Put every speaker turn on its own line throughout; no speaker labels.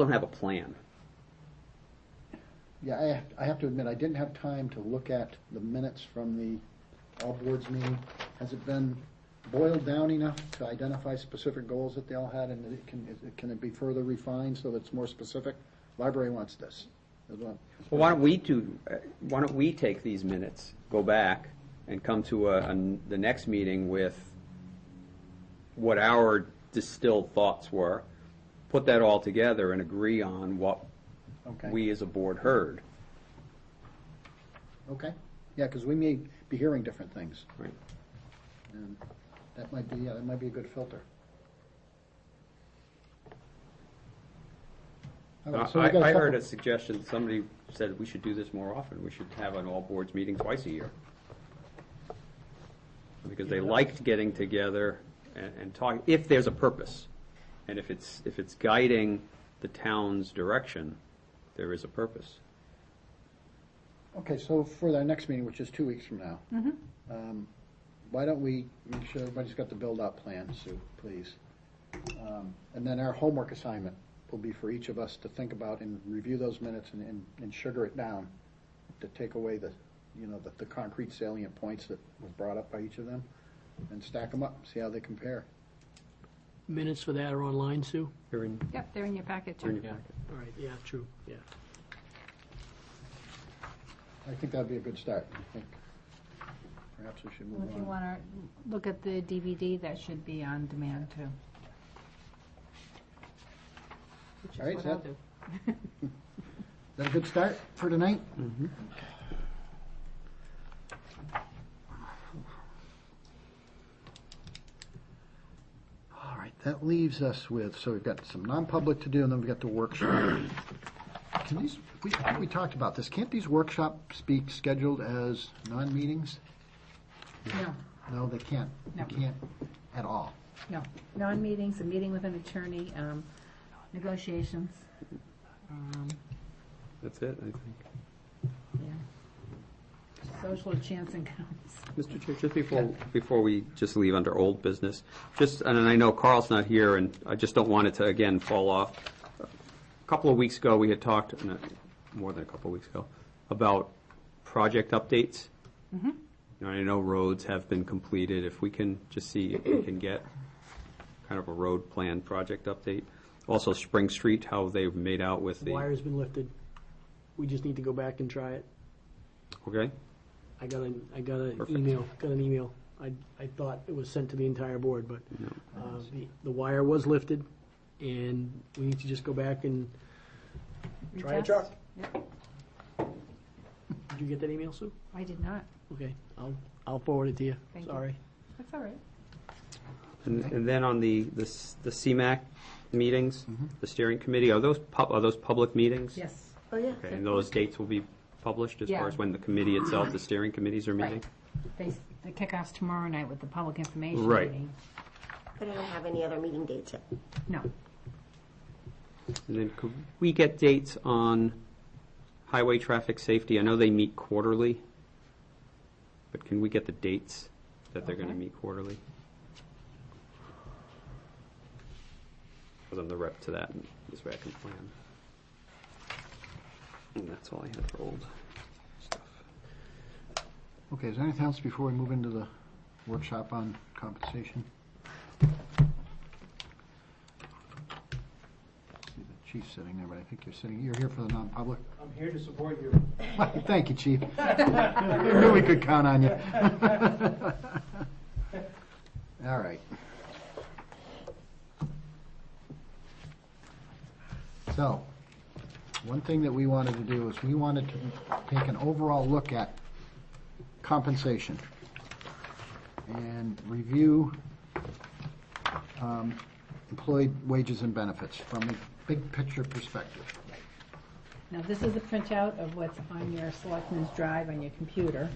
don't have a plan.
Yeah, I have, I have to admit, I didn't have time to look at the minutes from the all boards meeting. Has it been boiled down enough to identify specific goals that they all had and it can, it- can it be further refined so that it's more specific? Library wants this. as well.
Well, why don't we do, uh, why don't we take these minutes, go back, and come to a, a n- the next meeting with what our distilled thoughts were, put that all together and agree on what
Okay.
we as a board heard,
Okay, yeah, because we may be hearing different things.
right?
And that might be, yeah, that might be a good filter. All right, so we
Uh, I,
got
I heard a
couple-
suggestion, somebody said we should do this more often, we should have an all boards meeting twice a year. Because they liked getting together and, and talk, if there's a purpose. And if it's, if it's guiding the town's direction, there is a purpose.
Okay, so for our next meeting, which is two weeks from now.
Mm-hmm.
um, Why don't we make sure everybody's got the build-out plan, Sue, please? Um, And then our homework assignment will be for each of us to think about and review those minutes and- and, and sugar it down to take away the, you know, the, the concrete salient points that was brought up by each of them and stack them up, see how they compare.
Minutes for that are online, Sue?
Here in-
Yep, they're in your packet
here in
too.
your packet.
All right, yeah, true, yeah.
I think that'd be a good start. I think perhaps we should
Well,
move
If you
on.
want to look at the DVD, that should be on demand too. Which
All right,
is what I'll
so-
do.
Is that a good start for tonight? All right, that leaves us with, so we've got some non-public to do, and then we've got the workshop. Can these, we, I think we talked about this, can't these workshops be scheduled as non-meetings?
No,
No, they can't.
No.
They can't at all.
no. Non-meetings, a meeting with an attorney, um, negotiations. um,
That's it, I think.
yeah. Social chance encounters.
Mr. Chair, just before, before we just leave under old business, just, and I know Carl's not here, and I just don't want it to, again, fall off. A couple of weeks ago, we had talked, no, more than a couple of weeks ago, about project updates. You know, I know roads have been completed, if we can just see if we can get kind of a road plan project update. Also, Spring Street, how they've made out with the,
Wire's been lifted. We just need to go back and try it.
okay?
I got an, I got an
Perfect.
email, got an email. I, I thought it was sent to the entire board, but uh, the, the wire was lifted, and we need to just go back and, Try a
Retest?
truck.
Yep,
did you get that email, Sue?
I did not.
Okay, I'll, I'll forward it to you.
Thank you.
Sorry.
That's all right.
And and then on the, the s- the CMAC meetings, the steering committee, are those, pub- are those public meetings?
Mm-hmm. Yes. Oh, yeah.
Okay, and those dates will be published as
Yeah.
far as when the committee itself, the steering committees are meeting?
Right. They, s- the kickoff's tomorrow night with the public information
Right.
meeting.
But I don't have any other meeting dates yet.
No,
And then could we get dates on highway traffic safety? I know they meet quarterly, but can we get the dates that they're going to
Okay.
meet quarterly? Because I'm the rep to that, and this way I can plan. And that's all I had for old stuff.
Okay, is there anything else before we move into the workshop on compensation? See the chief sitting there, but I think you're sitting, you're here for the non-public.
I'm here to support you.
Thank you, chief. I knew we could count on you. All right. So, one thing that we wanted to do is we wanted to take an overall look at compensation and review um, employee wages and benefits from a big picture perspective.
Now, this is a printout of what's on your selectmen's drive on your computer.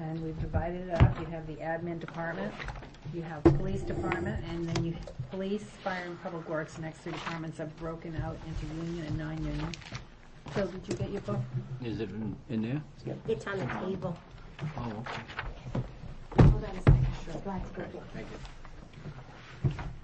And we've divided it up. You have the admin department, you have police department, and then you, police, fire, and public works, next three departments are broken out into union and non-union. Phil, did you get your book?
Is it in, in there?
It's on the table.
Oh, okay.
Hold on a second. I'd like to go get it.